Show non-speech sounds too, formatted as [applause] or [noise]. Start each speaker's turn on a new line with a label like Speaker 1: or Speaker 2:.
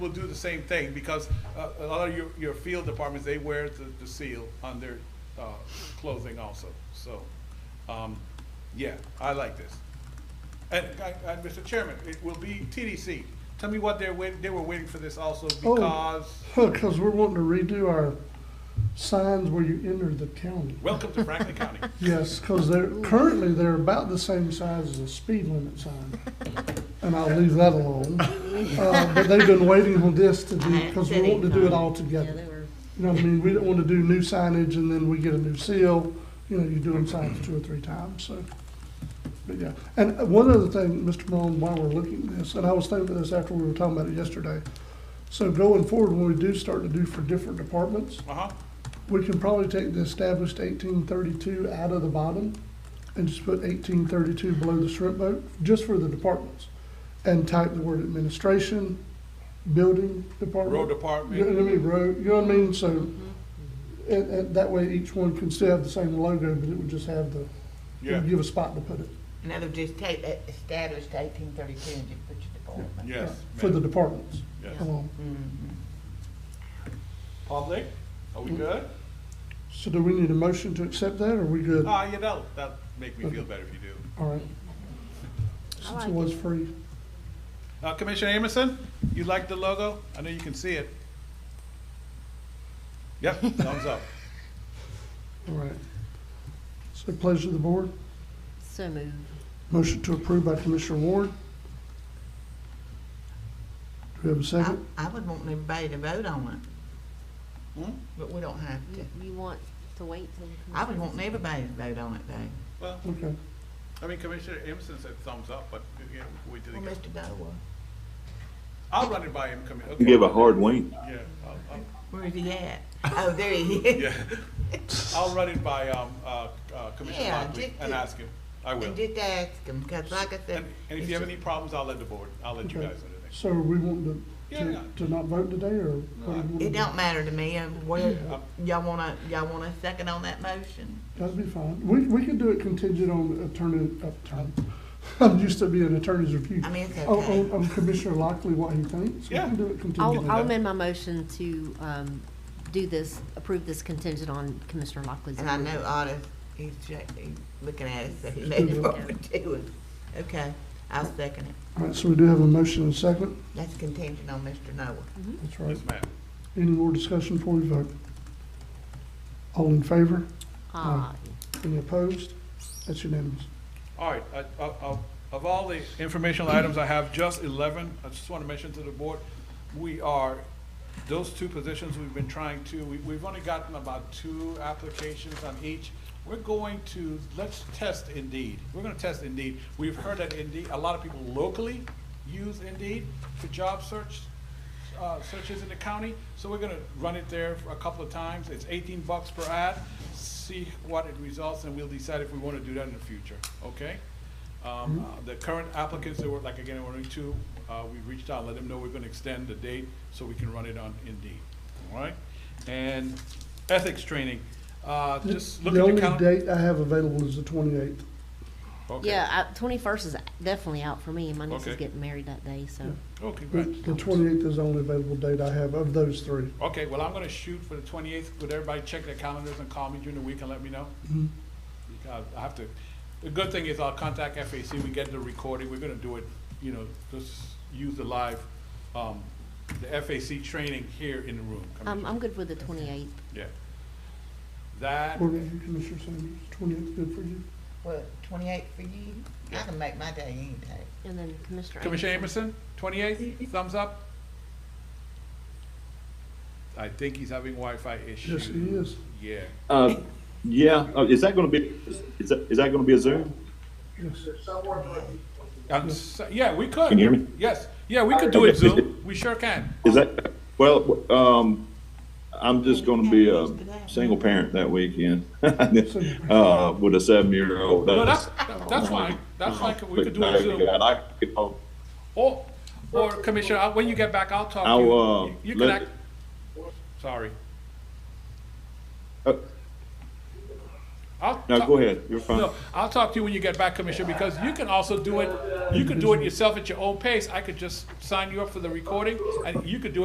Speaker 1: will do the same thing, because uh, a lot of your, your field departments, they wear the, the seal on their uh, clothing also, so, um, yeah, I like this. And, I- I- Mr. Chairman, it will be TDC, tell me what they're wait, they were waiting for this also,
Speaker 2: Oh.
Speaker 1: because,
Speaker 2: Because we're wanting to redo our signs where you enter the county.
Speaker 1: welcome to Franklin County. Uh-huh.
Speaker 2: Yes, because they're, currently, they're about the same size as a speed limit sign. And I'll leave that alone. Uh, But they've been waiting on this to do, because we want to do it all
Speaker 3: Yeah,
Speaker 2: together.
Speaker 3: they were,
Speaker 2: You know what I mean? We don't want to do new signage and then we get a new seal. You know, you do them signs two or three times, so. But yeah, and one other thing, Mr. Mullen, while we're looking at this, and I was thinking of this after we were talking about it yesterday. So going forward, when we do start to do for different departments,
Speaker 1: Uh-huh,
Speaker 2: we can probably take the established eighteen thirty-two out of the bottom and just put eighteen thirty-two below the shrimp boat, just for the departments. And type the word administration, building department.
Speaker 1: road
Speaker 2: You know
Speaker 1: department,
Speaker 2: what I mean, road, you know what I mean, so,
Speaker 4: mm-hmm.
Speaker 2: and, and that way each one can still have the same logo, but it would just have the, it would
Speaker 1: yeah,
Speaker 2: give a spot to put it.
Speaker 4: In other words, just take that established eighteen thirty-two and just put your department. Mm-hmm.
Speaker 1: yes.
Speaker 2: For the
Speaker 1: ma'am.
Speaker 2: departments.
Speaker 1: Yes.
Speaker 2: Um,
Speaker 1: Public, are we good?
Speaker 2: So do we need a motion to accept that, or are we good?
Speaker 1: Ah, you know, that'll make me feel better if you do.
Speaker 2: All right. Since it was free.
Speaker 1: Uh, Commissioner Amerson, you like the logo? I know you can see it. Yep, thumbs up.
Speaker 2: All right. So pleasure of the board.
Speaker 3: so moved.
Speaker 2: Motion to approve by Commissioner Ward. Do we have a
Speaker 4: I,
Speaker 2: second?
Speaker 4: I would want everybody to vote on it.
Speaker 1: [laughs] Hmm?
Speaker 4: But we don't have to.
Speaker 3: You- You want to wait till? the
Speaker 4: I would
Speaker 3: commission-
Speaker 4: want everybody to vote on it though.
Speaker 1: Well,
Speaker 2: Okay.
Speaker 1: I mean, Commissioner Amerson said thumbs up, but, you know, we
Speaker 4: Well,
Speaker 1: didn't get,
Speaker 4: Mr. Dowa,
Speaker 1: I'll run it by him, Commi- okay.
Speaker 5: Give a hard wink.
Speaker 1: Yeah, I'll, I'll,
Speaker 4: where is he at? Oh, there he
Speaker 1: [laughs]
Speaker 4: is.
Speaker 1: yeah.
Speaker 4: [laughs]
Speaker 1: I'll run it by, um, uh, uh, Commissioner
Speaker 4: Yeah,
Speaker 1: Lockley
Speaker 4: just
Speaker 1: and
Speaker 4: to-
Speaker 1: ask him. I will.
Speaker 4: And just ask him, cause like I said.
Speaker 1: And, and if you have any problems, I'll let the board, I'll let you
Speaker 2: Okay.
Speaker 1: guys
Speaker 4: [laughs]
Speaker 1: know the next.
Speaker 2: So we want to,
Speaker 1: Yeah, yeah.
Speaker 2: to, to not vote today, or what do you want? to
Speaker 4: It
Speaker 2: do?
Speaker 4: don't matter to me, um, where, y'all wanna, y'all want a second on that motion?
Speaker 2: That'd be fine. We, we could do it contingent on attorney, upturn. [laughs] I'm used to being attorney's review.
Speaker 4: I mean, it's
Speaker 2: On,
Speaker 4: okay.
Speaker 2: on- on oh, um, Commissioner Lockley, what he thinks. We
Speaker 1: Yeah.
Speaker 2: can do it contingent. on
Speaker 3: I'll, I'll
Speaker 2: that.
Speaker 3: amend my motion to, um, do this, approve this contingent on Commissioner Lockley's.
Speaker 4: And I
Speaker 3: approval.
Speaker 4: know Otis, he's, check- he's looking at us, so he knows what we're doing. Okay, I'll second it.
Speaker 2: All right, so we do have a motion and a second.
Speaker 4: That's contingent on Mr. Noah.
Speaker 3: Mm-hmm.
Speaker 2: That's right.
Speaker 1: Yes, ma'am.
Speaker 2: Any more discussion before we vote? All in favor?
Speaker 3: Ah,
Speaker 2: Any opposed? That's unanimous.
Speaker 1: All right, I- of, of- of all the informational items, I have just eleven. I just want to mention to the board, we are, those two positions we've been trying to, we, we've only gotten about two applications on each. We're going to, let's test Indeed. We're gonna test Indeed. We've heard that Indeed, a lot of people locally use Indeed for job search, uh, searches in the county, so we're gonna run it there for a couple of times. It's eighteen bucks per ad, see what it results, and we'll decide if we wanna do that in the future, okay?
Speaker 2: Mm-hmm.
Speaker 1: Um, uh, the current applicants, there were, like, again, there were only two, uh, we reached out, let them know we're gonna extend the date, so we can run it on Indeed, all right? And ethics training, uh, just look
Speaker 2: The
Speaker 1: at the
Speaker 2: only
Speaker 1: county.
Speaker 2: date I have available is the twenty-eighth.
Speaker 1: Oh. Okay.
Speaker 3: yeah, twenty-first is definitely out for me, my niece is
Speaker 1: Okay.
Speaker 3: getting married that day, so.
Speaker 1: Oh, congrats.
Speaker 2: The twenty-eighth is the only available date I have of those three.
Speaker 1: Okay, well, I'm gonna shoot for the twenty-eighth. Would everybody check their calendars and call me during the week and let me know?
Speaker 2: Mm-hmm.
Speaker 1: Because I have to, the good thing is I'll contact FAC, we get the recording, we're gonna do it, you know, just use the live, um, the FAC training here in the room.
Speaker 3: I'm,
Speaker 1: Commissioner.
Speaker 3: I'm good with the twenty-eighth.
Speaker 1: Yeah. That,
Speaker 2: What about you, Commissioner Sanders? Twenty-eighth, good for you?
Speaker 4: What, twenty-eight for you? I can make my day any day.
Speaker 3: And then Commissioner.
Speaker 1: Commissioner Amerson, twenty-eighth, thumbs up? I think he's having Wi-Fi issues.
Speaker 2: Yes, he is.
Speaker 1: Yeah.
Speaker 5: Uh, yeah, uh, is that gonna be, is that, is that gonna be a Zoom?
Speaker 2: Yes.
Speaker 1: I'm so- yeah, we could.
Speaker 5: Can you hear me?
Speaker 1: Yes, yeah, we could do it Zoom, we sure can.
Speaker 5: Is that, well, um, I'm just gonna be a single parent that weekend. [laughs] Uh, with a seven-year-old.
Speaker 1: No, that's, that's fine, that's fine, we could do
Speaker 5: But,
Speaker 1: it
Speaker 5: uh,
Speaker 1: Zoom.
Speaker 5: I could- I'll-
Speaker 1: Or, or Commissioner, I- when you get back, I'll talk to you.
Speaker 5: I'll, uh,
Speaker 1: You- You can
Speaker 5: let-
Speaker 1: act, sorry.
Speaker 5: uh,
Speaker 1: I'll
Speaker 5: No,
Speaker 1: talk-
Speaker 5: go ahead. You're fine.
Speaker 1: No, I'll talk to you when you get back, Commissioner, because you can also do it, you can do it yourself at your own pace. I could just sign you up for the recording, and you could do it.